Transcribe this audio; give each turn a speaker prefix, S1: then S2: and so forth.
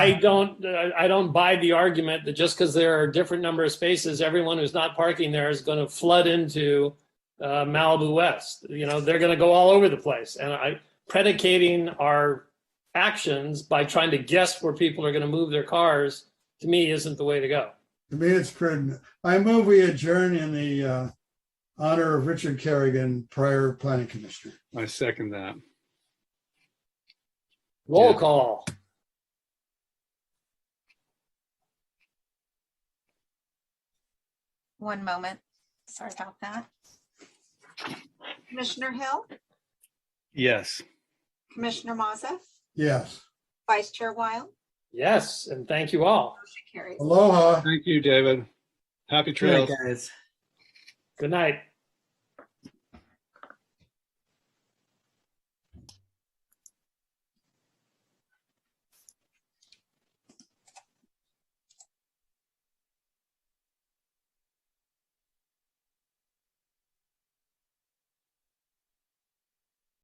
S1: I don't, I don't buy the argument that just because there are different number of spaces, everyone who's not parking there is going to flood into uh, Malibu West. You know, they're going to go all over the place. And I, predicating our actions by trying to guess where people are going to move their cars, to me, isn't the way to go.
S2: To me, it's prudent. I move we adjourn in the uh, honor of Richard Kerrigan, prior planning commissioner.
S3: I second that.
S1: Roll
S3: Yeah.
S1: call.
S4: One moment. Sorry about that. Commissioner Hill,
S3: Yes.
S4: Commissioner Maza,
S2: Yes.
S4: Vice Chair Weil,
S1: Yes, and thank you all.
S4: motion carries.
S2: Aloha.
S3: Thank you, David. Happy
S5: Good night,
S3: trails.
S5: guys.
S1: Good night.